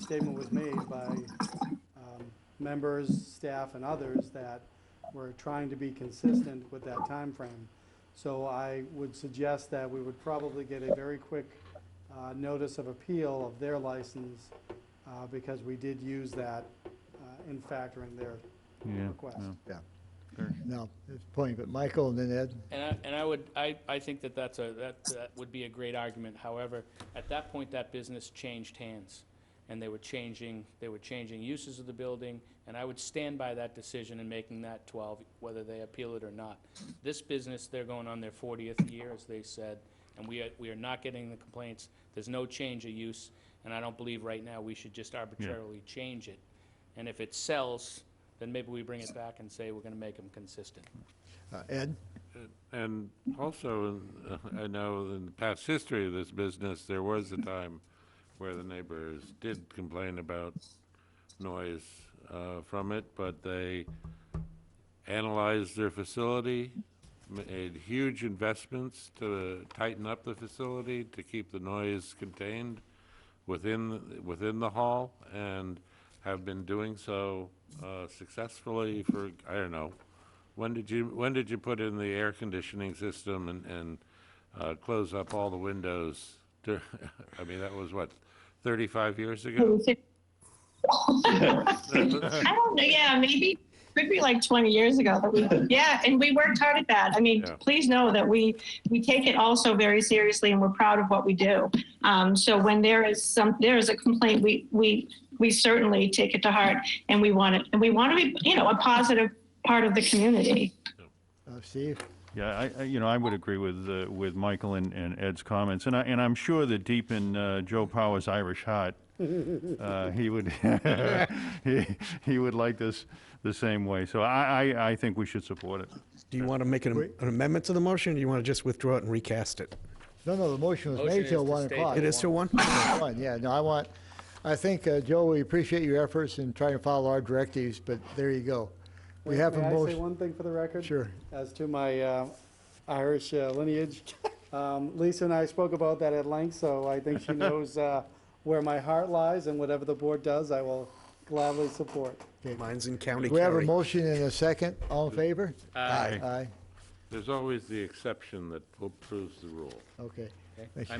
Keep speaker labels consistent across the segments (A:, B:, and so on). A: statement was made by um, members, staff, and others that we're trying to be consistent with that time frame. So I would suggest that we would probably get a very quick uh, notice of appeal of their license uh, because we did use that uh, in factoring their
B: Yeah,
A: request.
B: yeah.
C: Yeah. No, it's a point, but Michael and then Ed,
D: And I, and I would, I, I think that that's a, that, that would be a great argument. However, at that point, that business changed hands. And they were changing, they were changing uses of the building, and I would stand by that decision in making that twelve, whether they appeal it or not. This business, they're going on their fortieth year, as they said, and we are, we are not getting the complaints. There's no change of use, and I don't believe right now we should just arbitrarily change it. And if it sells, then maybe we bring it back and say we're gonna make them consistent.
C: uh, Ed,
E: And also, uh, I know in the past history of this business, there was a time where the neighbors did complain about noise uh, from it, but they analyzed their facility, made huge investments to tighten up the facility, to keep the noise contained within, within the hall, and have been doing so uh, successfully for, I don't know, when did you, when did you put in the air conditioning system and, and uh, close up all the windows? dur- I mean, that was what, 35 years ago?
F: I don't know. Yeah, maybe could be like 20 years ago that we yeah and we worked hard at that i mean
E: Yeah.
F: please know that we we take it also very seriously and we're proud of what we do um, so when there is some there is a complaint we we we certainly take it to heart and we want it and we want to be you know a positive part of the community
C: uh, Steve,
B: Yeah, I, I, you know, I would agree with, uh, with Michael and, and Ed's comments, and I, and I'm sure that deep in, uh, Joe Power's Irish heart, uh, he would, he, he would like this the same way, so I, I, I think we should support it.
G: Do you want to make an
C: Wait.
G: an amendment to the motion, or do you want to just withdraw it and recast it?
C: no, no, the motion was
D: Motion
C: made till
D: is to
C: 1
D: stay-
C: o'clock.
G: It is still one?
C: One, Yeah, no, I want, I think, uh, Joe, we appreciate your efforts in trying to follow our directives, but there you go. We
A: May-
C: have
A: may
C: a
A: I say
C: motion.
A: one thing for the record?
C: Sure.
A: As to my uh, Irish uh, lineage, um, Lisa and I spoke about that at length, so I think she knows uh, where my heart lies, and whatever the board does, I will gladly support.
G: Mine's in County
C: We have a
G: Kerry.
C: motion and a second. All in favor?
G: Aye.
C: Aye,
E: There's always the exception that proves the rule.
C: okay.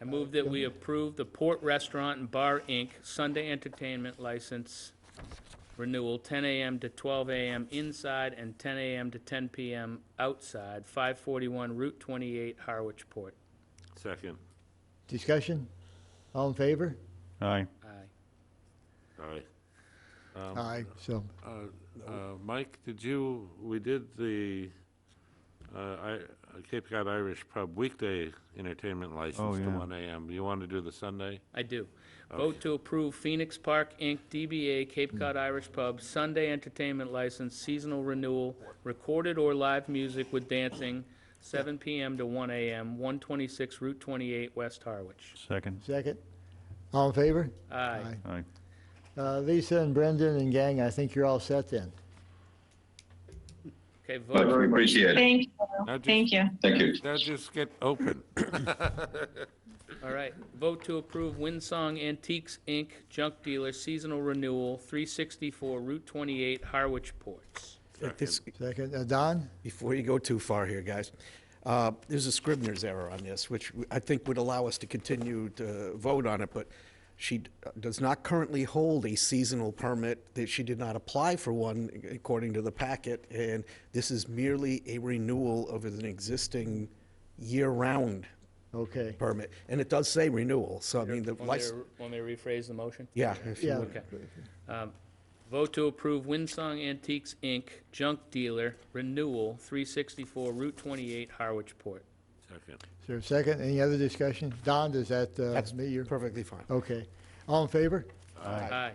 D: I move that we approve the Port Restaurant and Bar, Inc. Sunday Entertainment License Renewal, 10 AM to 12 AM inside and 10 AM to 10 PM outside, 541 Route 28, Harwich Port.
E: Second.
C: Discussion? All in favor?
B: Aye.
D: Aye.
E: Aye.
C: Aye, so,
E: Uh, uh, Mike, did you, we did the uh, I- uh, Cape Cod Irish Pub weekday entertainment
B: Oh,
E: license to
B: yeah.
E: 1 AM. You want to do the Sunday?
D: I do. Vote to approve Phoenix Park, Inc., DBA Cape Cod Irish Pub, Sunday Entertainment License, Seasonal Renewal, Recorded or Live Music with Dancing, 7 PM to 1 AM, 126 Route 28, West Harwich.
B: Second,
C: second. All in favor?
D: Aye.
B: aye.
C: Uh, Lisa and Brendan and gang, I think you're all set then.
D: Okay,
H: I
D: vote.
H: very appreciate it.
F: thank you
E: Now just-
F: thank you
H: Thank you.
E: Now just get open.
D: All right, vote to approve Winsong Antiques, Inc., junk dealer, seasonal renewal, 364 Route 28, Harwich Ports.
G: At this-
C: Second, uh, Don?
G: Before you go too far here, guys, uh, there's a Scribner's error on this, which I think would allow us to continue to vote on it, but she d- does not currently hold a seasonal permit, that she did not apply for one according to the packet, and this is merely a renewal of an existing year-round
C: Okay.
G: permit. And it does say renewal, so I mean, the
D: Want me
G: license,
D: to- want me to rephrase the motion?
G: yeah. if you
C: Yeah.
G: would.
D: Vote to approve Winsong Antiques, Inc., junk dealer, renewal, 364 Route 28, Harwich Port.
E: Second.
C: Is there a second? Any other discussion? Don, does that
G: That's
C: uh, meet your?
G: perfectly fine.
C: Okay. All in favor?
D: Aye.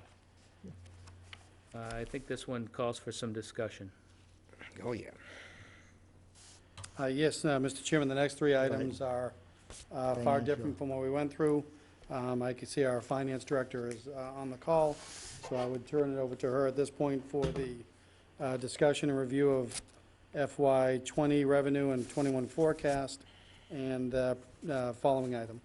D: Uh, I think this one calls for some discussion.
G: Oh, yeah.
A: Uh, Yes, uh, Mr. Chairman, the next three items are uh, far
C: Financial.
A: different from what we went through. Um, I can see our finance director is uh, on the call, so I would turn it over to her at this point for the uh, discussion and review of FY '20 revenue and '21 forecast and uh, uh, following item.